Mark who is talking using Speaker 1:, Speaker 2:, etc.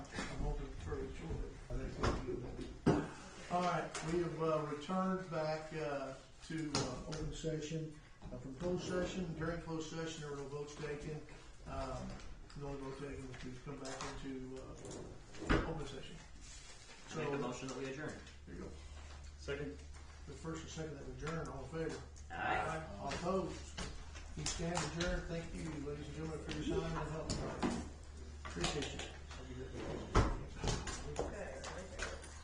Speaker 1: All right, we have uh, returned back uh, to uh, open session. Uh, From closed session, during closed session, there were no votes taken. Um, No vote taken, we can come back into uh, open session.
Speaker 2: I make a
Speaker 1: So
Speaker 2: motion that we adjourn.
Speaker 3: There you go. Second.
Speaker 1: the first and second that adjourn, all in favor?
Speaker 2: Aye.
Speaker 1: All opposed? You stand adjourned. Thank you, ladies and gentlemen, for your time and help. Appreciate you. Have a good day.